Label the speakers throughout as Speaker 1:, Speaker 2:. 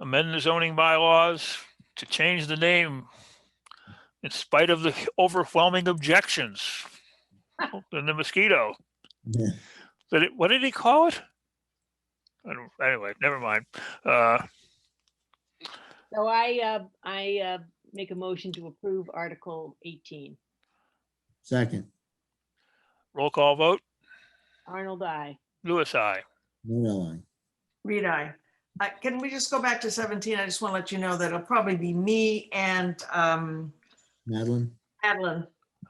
Speaker 1: amend the zoning bylaws to change the name in spite of the overwhelming objections and the mosquito.
Speaker 2: Yeah.
Speaker 1: That it, what did he call it? I don't, anyway, never mind. Uh,
Speaker 3: So I, uh, I, uh, make a motion to approve Article eighteen.
Speaker 2: Second,
Speaker 1: roll call vote,
Speaker 3: Arnold, I.
Speaker 1: Lewis, I.
Speaker 2: Modell, aye.
Speaker 4: Reed, I. Uh, Can we just go back to 17? I just want to let you know that it'll probably be me and um,
Speaker 2: Madeline,
Speaker 4: Adeline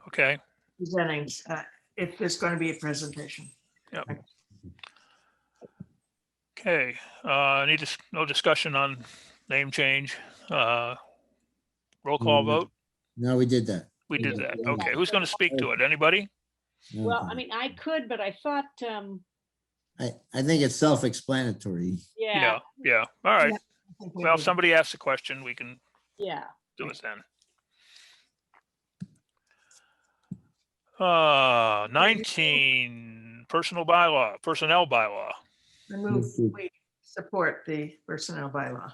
Speaker 1: Okay,
Speaker 4: presenting uh, if there's going to be a presentation.
Speaker 1: okay. Uh, need dis no discussion on name change. Uh, roll call
Speaker 2: Mm.
Speaker 1: vote.
Speaker 2: no, we did that.
Speaker 1: We did
Speaker 2: Yeah.
Speaker 1: that. Okay, who's going to speak to it? Anybody?
Speaker 3: Well, I mean, I could, but I thought, um,
Speaker 2: I, I think it's self-explanatory.
Speaker 3: yeah,
Speaker 1: Yeah, yeah. All right.
Speaker 4: I think we
Speaker 1: Well, if
Speaker 4: need-
Speaker 1: somebody asks a question, we can
Speaker 3: yeah.
Speaker 1: do it then. Uh, nineteen, personal bylaw, personnel bylaw.
Speaker 4: I move, we support the personnel bylaw.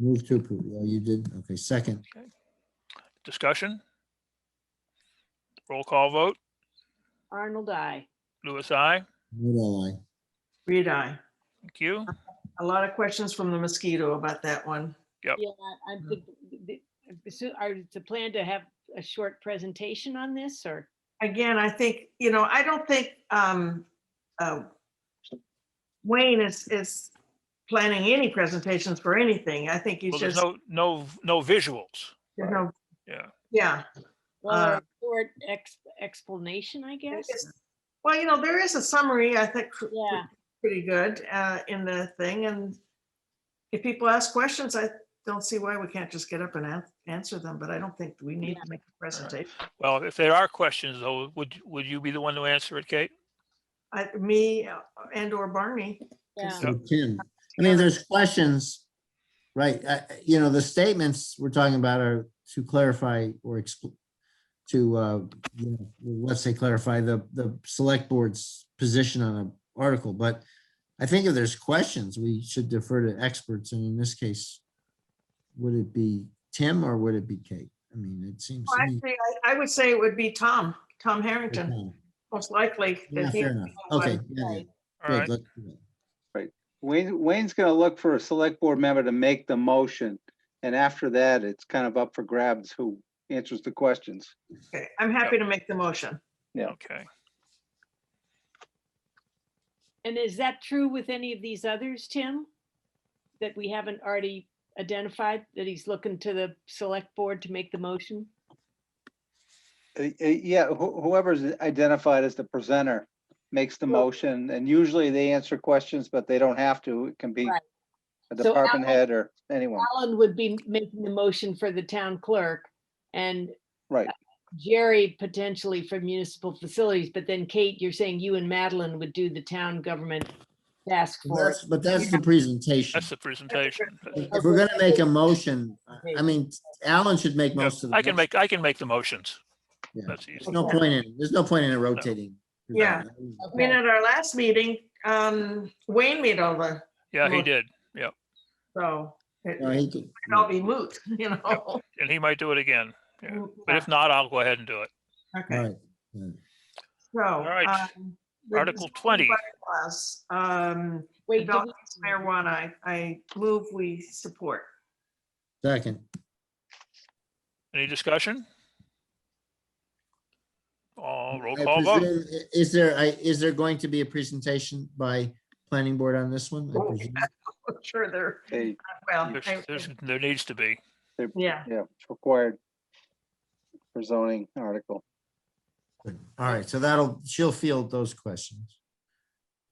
Speaker 2: Move to approve. Oh, you did? Okay, second,
Speaker 1: Discussion? Roll call vote.
Speaker 3: Arnold, I.
Speaker 1: Louis, I.
Speaker 2: Modell, aye.
Speaker 4: Reed, I.
Speaker 1: Thank you.
Speaker 4: A lot of questions from the mosquito about that one.
Speaker 1: Yep.
Speaker 3: Yeah, I
Speaker 4: Mm.
Speaker 3: think, the- the- so are, it's a plan to have a short presentation on this or?
Speaker 4: Again, I think, you know, I don't think um, uh, Wayne is, is planning any presentations for anything. I think he's
Speaker 1: Well, there's
Speaker 4: just,
Speaker 1: no, no, no visuals.
Speaker 4: there's no,
Speaker 1: Yeah.
Speaker 4: yeah.
Speaker 3: Well,
Speaker 4: Uh,
Speaker 3: a short ex- explanation, I guess?
Speaker 4: Yes. Well, you know, there is a summary, I think, pr-
Speaker 3: Yeah,
Speaker 4: pretty good uh, in the thing, and if people ask questions, I don't see why we can't just get up and an- answer them, but I don't think we need to make a presentation.
Speaker 1: Well, if there are questions though, would, would you be the one to answer it, Kate?
Speaker 4: I, me uh, and or Barney.
Speaker 3: yeah,
Speaker 2: So Tim, I mean, there's questions, right? I- I- You know, the statements we're talking about are to clarify or expl- to, uh, you know, let's say clarify the, the select board's position on an article, but I think if there's questions, we should defer to experts, and in this case, would it be Tim or would it be Kate? I mean, it seems
Speaker 4: Well,
Speaker 2: to me.
Speaker 4: Actually, I, I would say it would be Tom, Tom Harrington, most likely.
Speaker 2: Yeah,
Speaker 4: that he-
Speaker 2: fair enough. Okay, yeah, yeah,
Speaker 1: All
Speaker 2: good,
Speaker 1: right,
Speaker 2: let's do that.
Speaker 5: Wayne, Wayne's gonna look for a select board member to make the motion. And after that, it's kind of up for grabs who answers the questions.
Speaker 4: Okay, I'm happy to make the motion.
Speaker 1: okay.
Speaker 3: and is that true with any of these others, Tim? That we haven't already identified, that he's looking to the select board to make the motion?
Speaker 5: Uh, uh, Yeah, who- whoever's identified as the presenter makes the
Speaker 3: Well-
Speaker 5: motion and usually they answer questions, but they don't have to. It can be
Speaker 3: Right.
Speaker 5: a
Speaker 3: So
Speaker 5: department head or anyone,
Speaker 3: Alan would be making the motion for the town clerk and uh,
Speaker 5: right?
Speaker 3: Jerry potentially for municipal facilities, but then Kate, you're saying you and Madeline would do the town government task force.
Speaker 2: That's- But that's the presentation.
Speaker 1: That's the presentation.
Speaker 2: If we're gonna make a motion, I- I mean, Alan should make
Speaker 1: Yeah,
Speaker 2: most of the.
Speaker 1: I can
Speaker 2: motion.
Speaker 1: make, I can make the motions.
Speaker 2: Yeah.
Speaker 1: That's easy.
Speaker 2: There's no point in, there's no point in it rotating. through
Speaker 4: Yeah.
Speaker 2: that.
Speaker 4: I mean, at our last meeting, um, Wayne made all the,
Speaker 1: Yeah, he
Speaker 4: Well-
Speaker 1: did.
Speaker 4: so it
Speaker 2: No, he could-
Speaker 4: might all be moot, you know?
Speaker 1: And he might do it again. Yeah, But if not, I'll go ahead and do it.
Speaker 4: Okay.
Speaker 2: All right,
Speaker 4: So.
Speaker 1: right.
Speaker 4: um, the
Speaker 1: Article
Speaker 4: zoning
Speaker 1: 20.
Speaker 4: bylaws, um,
Speaker 3: Wait, did we-
Speaker 4: adult use marijuana, I, I move we support.
Speaker 2: Second,
Speaker 1: Any discussion? Oh, roll
Speaker 2: I
Speaker 1: call vote.
Speaker 2: presume- i- is there, I- is there going to be a presentation by planning board on this one? I
Speaker 4: Oh,
Speaker 2: presume?
Speaker 4: I'm Sure, they're,
Speaker 5: They,
Speaker 4: well,
Speaker 1: There's,
Speaker 4: I-
Speaker 1: there's, there needs to be.
Speaker 5: they're,
Speaker 4: yeah,
Speaker 5: yeah, it's required for zoning article.
Speaker 2: All right, so that'll, she'll field those questions.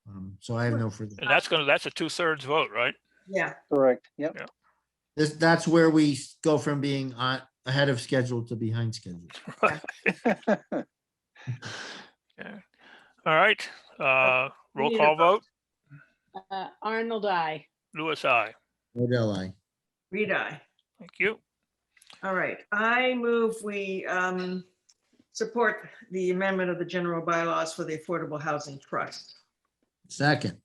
Speaker 2: Um, So I have no further,
Speaker 1: And that's gonna, that's a two-thirds vote, right?
Speaker 4: yeah,
Speaker 5: Correct, yep.
Speaker 2: this, that's where we go from being on, ahead of schedule to behind schedule.
Speaker 1: Yeah. All right, uh, roll
Speaker 4: need a
Speaker 1: call vote.
Speaker 3: uh, Arnold, I.
Speaker 1: Louis, I.
Speaker 2: Modell, aye.
Speaker 4: read I.
Speaker 1: Thank you.
Speaker 4: All right, I move we, um, support the amendment of the general bylaws for the Affordable Housing Trust.
Speaker 2: Second,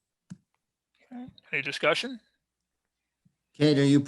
Speaker 1: Any discussion?
Speaker 2: Kate, are you